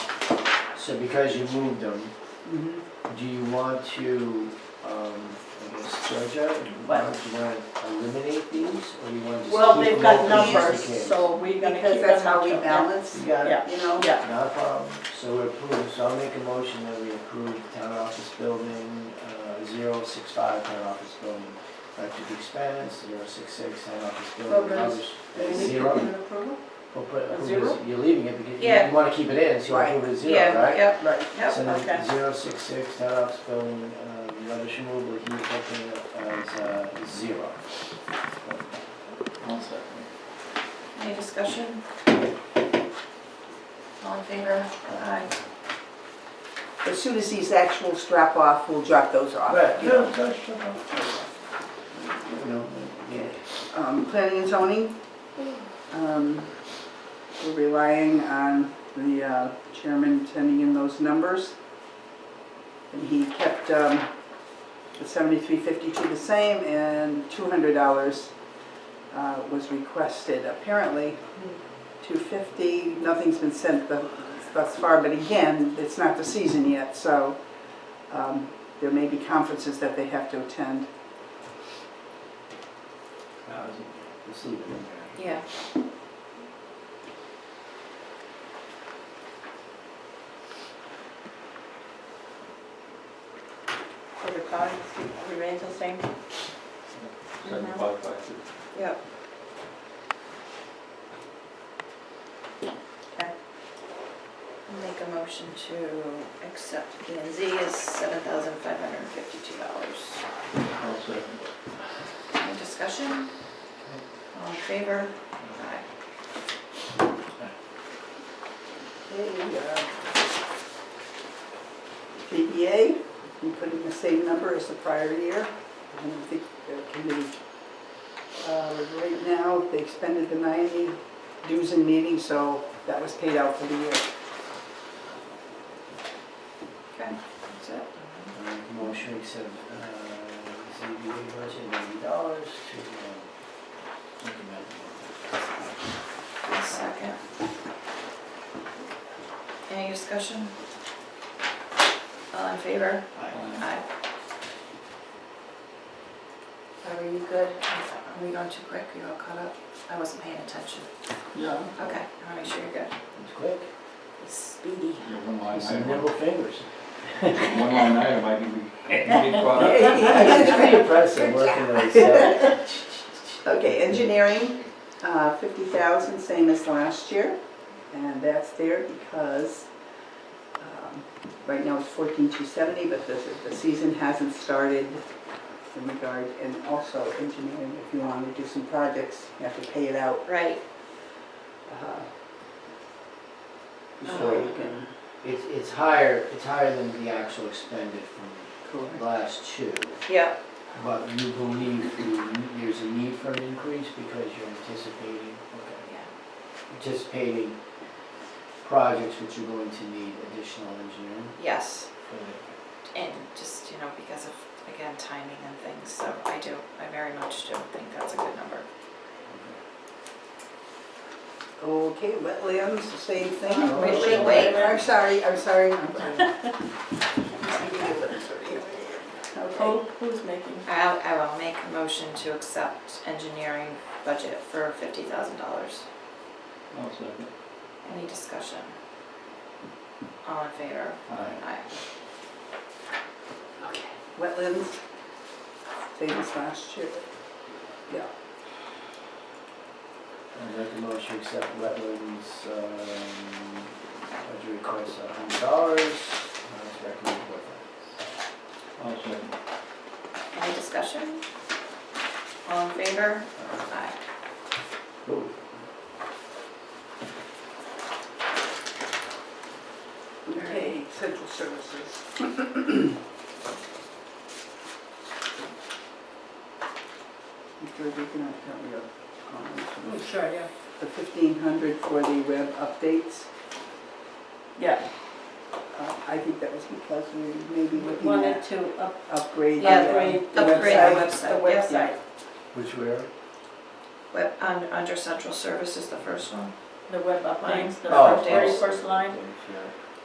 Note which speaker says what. Speaker 1: So because you moved them,
Speaker 2: Mhm.
Speaker 1: do you want to, um, I guess, Georgia, do you
Speaker 2: Well-
Speaker 1: want to eliminate these, or you want to just keep them open?
Speaker 2: Well, they've got
Speaker 1: just in
Speaker 2: numbers,
Speaker 1: case?
Speaker 2: so we're gonna keep them.
Speaker 3: Because that's how we
Speaker 2: until-
Speaker 3: balance,
Speaker 1: You got it?
Speaker 2: Yeah,
Speaker 3: you know?
Speaker 2: yeah,
Speaker 1: Not a problem, so we approve, so I'll make a motion that we approve town office building, uh, zero six five, town office building, electric expense, zero six six, town office building,
Speaker 2: Programs.
Speaker 1: others,
Speaker 2: Do we need
Speaker 1: zero.
Speaker 3: approval?
Speaker 1: We'll put,
Speaker 2: A
Speaker 1: approve
Speaker 2: zero?
Speaker 1: it- you're leaving it because you-
Speaker 3: Yeah.
Speaker 1: you wanna keep it in, so
Speaker 3: Right.
Speaker 1: you approve it zero,
Speaker 3: Yeah,
Speaker 1: right?
Speaker 3: yeah,
Speaker 2: right, yeah,
Speaker 1: So
Speaker 2: okay.
Speaker 1: then, zero six six, town office building, um, rubbish removal, heat affecting, as, uh, zero.
Speaker 3: any discussion? All in favor? Aye.
Speaker 2: As soon as these actual strap off, we'll drop those off.
Speaker 1: Right,
Speaker 2: you know.
Speaker 1: yeah, that's, uh, you know, yeah.
Speaker 2: Um, Planning and zoning, um, we're relying on the uh, chairman sending in those numbers. And he kept um, the seventy-three fifty-two the same and two hundred dollars uh, was requested. Apparently, two fifty, nothing's been sent th- thus far, but again, it's not the season yet, so um, there may be conferences that they have to attend.
Speaker 1: Thousand, let's leave it in there.
Speaker 3: Yeah.
Speaker 4: For the cost, remains the same?
Speaker 5: Seventy-five, five fifty.
Speaker 4: Yep. Okay.
Speaker 3: Make a motion to accept P and Z as seven thousand five hundred and fifty-two dollars.
Speaker 5: I'll second.
Speaker 3: Any discussion? All in favor? Aye.
Speaker 2: DDA, E we put in the same number as the prior year. I don't think the committee, uh, right now, they expended the 90 dues and meetings, so that was paid out for the year.
Speaker 3: Okay, that's it.
Speaker 1: Uh, Motion accept, uh, ZBA budget ninety dollars to, uh, implement.
Speaker 3: A second. Any discussion? All in favor?
Speaker 1: Aye.
Speaker 3: Aye. Are we good? Are we going too quick? Are you all caught up? I wasn't paying attention.
Speaker 2: Yeah.
Speaker 3: Okay, I wanna make sure you're good.
Speaker 1: It's quick,
Speaker 3: Speedy.
Speaker 5: Yeah, one line
Speaker 1: it's some
Speaker 5: item,
Speaker 1: nimble fingers.
Speaker 5: one line item, I think we, we get caught up.
Speaker 1: It's pretty impressive working those, uh,
Speaker 2: Okay, engineering, uh, 50,000, same as last year. And that's there because, um, right now it's 14,270, but the, the season hasn't started in regard, and also engineering, if you want to do some projects, you have to pay it out
Speaker 3: Right,
Speaker 2: uh, before
Speaker 1: so
Speaker 2: you can.
Speaker 1: it's, it's higher, it's higher than the actual expended from
Speaker 2: Correct.
Speaker 1: last two.
Speaker 3: yeah,
Speaker 1: But you believe you- there's a need for an increase because you're anticipating, okay.
Speaker 3: yeah.
Speaker 1: anticipating projects which are going to need additional engineering
Speaker 3: Yes,
Speaker 1: for the,
Speaker 3: and just, you know, because of, again, timing and things, so I do, I very much do think that's a good number.
Speaker 2: Okay, wetlands, same thing.
Speaker 1: Wait,
Speaker 3: wait, wait.
Speaker 2: I'm sorry, I'm sorry, I'm sorry. Okay.
Speaker 4: Who, who's making?
Speaker 3: I, I will make a motion to accept engineering budget for fifty thousand dollars.
Speaker 5: I'll second.
Speaker 3: Any discussion? All in favor?
Speaker 5: Aye.
Speaker 3: Aye.
Speaker 2: wetlands, same as last year. Yeah.
Speaker 1: I make a motion to accept wetlands, um, budget request of hundred dollars, as recommended by
Speaker 5: I'll second.
Speaker 3: Any discussion? All in favor? Aye.
Speaker 1: Cool.
Speaker 2: Okay, central services. Mr. Deacon, I thought we were on this.
Speaker 4: Sure, yeah.
Speaker 2: The fifteen hundred for the web updates,
Speaker 4: Yeah,
Speaker 2: uh, I think that was because we may be
Speaker 4: we
Speaker 2: looking
Speaker 4: wanted
Speaker 2: at
Speaker 4: to up-
Speaker 2: upgrade. the,
Speaker 3: Yeah,
Speaker 2: um,
Speaker 4: upgrade-
Speaker 2: the
Speaker 3: upgrade the
Speaker 2: website.
Speaker 4: the
Speaker 3: website, yes.
Speaker 4: website,
Speaker 1: Which where?
Speaker 3: Web, un- under central services, the first one.
Speaker 4: the web updates, the
Speaker 1: Oh,
Speaker 4: first- very
Speaker 1: oh.
Speaker 4: first line.
Speaker 1: Yeah.